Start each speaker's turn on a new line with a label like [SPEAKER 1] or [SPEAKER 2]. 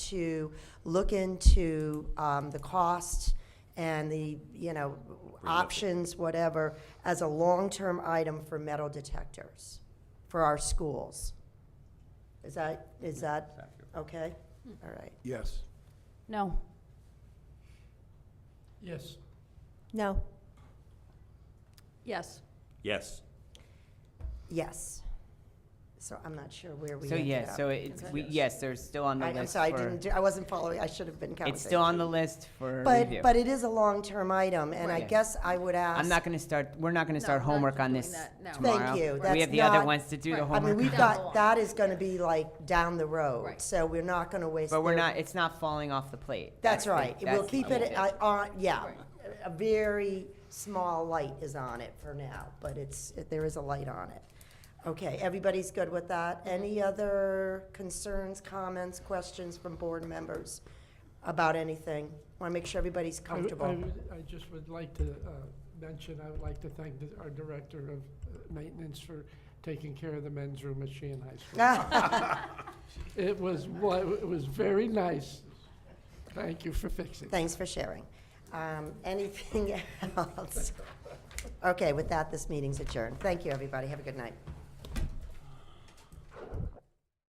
[SPEAKER 1] to look into um, the cost and the, you know, options, whatever, as a long-term item for metal detectors for our schools. Is that, is that, okay? All right.
[SPEAKER 2] Yes.
[SPEAKER 3] No.
[SPEAKER 4] Yes.
[SPEAKER 1] No.
[SPEAKER 3] Yes.
[SPEAKER 5] Yes.
[SPEAKER 1] Yes. So I'm not sure where we
[SPEAKER 6] So
[SPEAKER 1] ended
[SPEAKER 6] yes,
[SPEAKER 1] up.
[SPEAKER 6] so it's,
[SPEAKER 3] Okay.
[SPEAKER 6] we, yes, they're still on the
[SPEAKER 1] I-
[SPEAKER 6] list for.
[SPEAKER 1] I'm sorry, I didn't, do- I wasn't following, I should have been counting.
[SPEAKER 6] It's still on the list for review.
[SPEAKER 1] But, but it is a long-term item, and I
[SPEAKER 6] Right.
[SPEAKER 1] guess I would ask.
[SPEAKER 6] I'm not gonna start, we're not gonna
[SPEAKER 3] No,
[SPEAKER 6] start
[SPEAKER 3] not
[SPEAKER 6] homework on
[SPEAKER 3] doing
[SPEAKER 6] this
[SPEAKER 3] that, no. Thank
[SPEAKER 6] tomorrow.
[SPEAKER 1] you,
[SPEAKER 6] We
[SPEAKER 1] that's
[SPEAKER 6] have the other
[SPEAKER 1] not-
[SPEAKER 6] ones to do
[SPEAKER 3] Right.
[SPEAKER 6] the
[SPEAKER 3] I mean,
[SPEAKER 1] I mean,
[SPEAKER 6] homework.
[SPEAKER 1] we've
[SPEAKER 3] Down the
[SPEAKER 1] got,
[SPEAKER 3] line.
[SPEAKER 1] that is gonna be like down the road,
[SPEAKER 3] Right.
[SPEAKER 1] so we're not gonna waste.
[SPEAKER 6] But we're
[SPEAKER 1] their-
[SPEAKER 6] not, it's not falling off the plate.
[SPEAKER 1] That's
[SPEAKER 6] the-
[SPEAKER 1] right,
[SPEAKER 6] that's
[SPEAKER 1] we'll
[SPEAKER 6] the
[SPEAKER 1] keep it,
[SPEAKER 6] issue.
[SPEAKER 1] uh, on, yeah,
[SPEAKER 3] Right.
[SPEAKER 1] a very small light is on it for now, but it's, there is a light on it. Okay, everybody's good with that?
[SPEAKER 6] Mm-hmm.
[SPEAKER 1] Any other concerns, comments, questions from board members about anything? Wanna make sure everybody's
[SPEAKER 4] I would- I
[SPEAKER 1] comfortable.
[SPEAKER 4] would- I just would like to uh, mention, I would like to thank the- our Director of uh, Maintenance for taking care of the men's room at Sheehan High School. It was, wa- it was very nice. Thank you for fixing.
[SPEAKER 1] Thanks for sharing. Um, Anything else? Okay, with that, this meeting's adjourned. Thank you, everybody. Have a good night.